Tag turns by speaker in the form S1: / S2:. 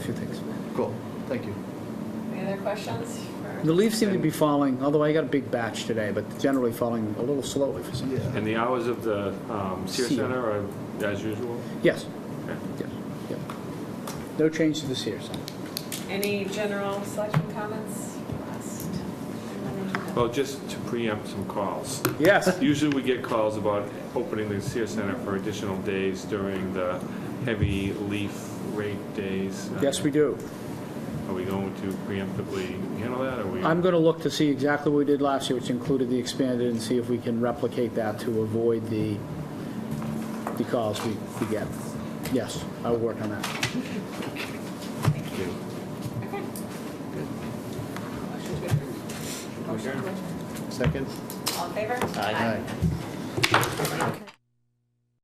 S1: Cool, thank you.
S2: Any other questions? for-
S3: The leaves seem to be falling, although I got a big batch today, but generally falling a little slowly for some reason.
S1: Yeah.
S4: And the hours of the um, Sear
S3: Sear.
S4: Center are as usual?
S3: Yes,
S4: Okay.
S3: yes, yes. No change to this year, so.
S2: Any general selection comments? Last.
S4: Well, just to preempt some calls.
S3: Yes,
S4: Usually we get calls about opening the Sear Center for additional days during the heavy leaf rate days.
S3: yes, we do.
S4: Are we going to preemptively handle that, or we?
S3: I'm going to look to see exactly what we did last year, which included the expanded, and see if we can replicate that to avoid the, the calls we, we get. Yes, I will work on that.
S2: Thank you. Okay.
S1: Good.
S2: Motion to approve. Motion to adjourn.
S1: Second?
S2: All in favor?
S1: Aye.
S2: Aye.